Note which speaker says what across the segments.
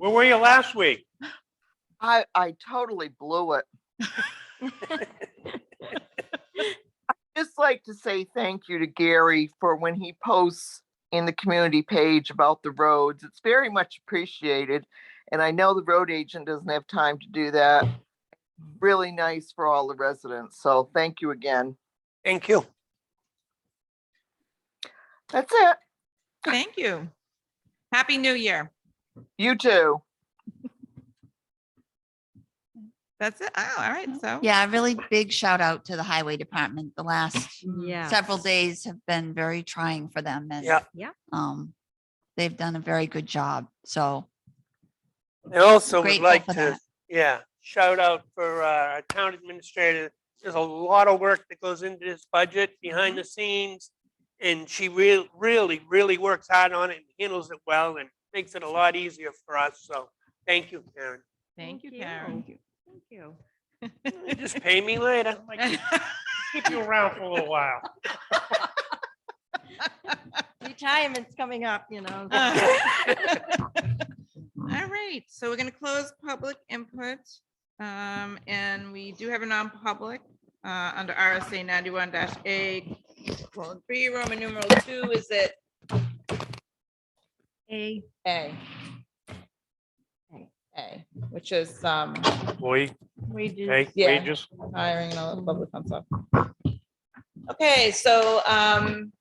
Speaker 1: Where were you last week?
Speaker 2: I, I totally blew it. I'd Just like to say thank you to Gary for when he posts in the community page about the roads. It's very much appreciated. And I know the road agent doesn't have time to do that. Really nice for all the residents. So thank you again.
Speaker 1: Thank you.
Speaker 2: That's it.
Speaker 3: Thank you. Happy New Year.
Speaker 2: You too.
Speaker 3: That's it. Oh, all right. So.
Speaker 4: Yeah, a really big shout out to the highway department. The last
Speaker 5: Yeah.
Speaker 4: several days have been very trying for them and
Speaker 1: Yeah.
Speaker 5: Yeah.
Speaker 4: um, they've done a very good job. So
Speaker 1: And also would
Speaker 4: grateful
Speaker 1: like
Speaker 4: for
Speaker 1: to,
Speaker 4: that.
Speaker 1: yeah, shout out for uh, our town administrator. There's a lot of work that goes into this budget behind the scenes. And she real, really, really works hard on it and handles it well and makes it a lot easier for us. So thank you, Karen.
Speaker 3: Thank you, Karen.
Speaker 5: Thank you.
Speaker 1: Just pay me later. I'm like, Keep you around for a little while.
Speaker 5: Retirement's coming up, you know.
Speaker 3: All right. So we're going to close public input. Um, and we do have a non-public, uh, under RSA ninety-one dash A. Well, three, Roman numeral two, is it
Speaker 5: A.
Speaker 3: A? A, which is, um,
Speaker 1: Boy,
Speaker 5: Wages.
Speaker 3: Yeah. wages. hiring and all that public fun stuff. Okay, so, um,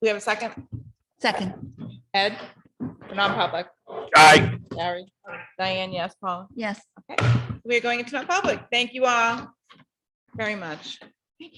Speaker 3: we have a second,
Speaker 4: second,
Speaker 3: Ed, for non-public,
Speaker 1: Aye.
Speaker 3: Gary, Diane, yes, Paul.
Speaker 4: yes.
Speaker 3: We're going into non-public. Thank you all very much.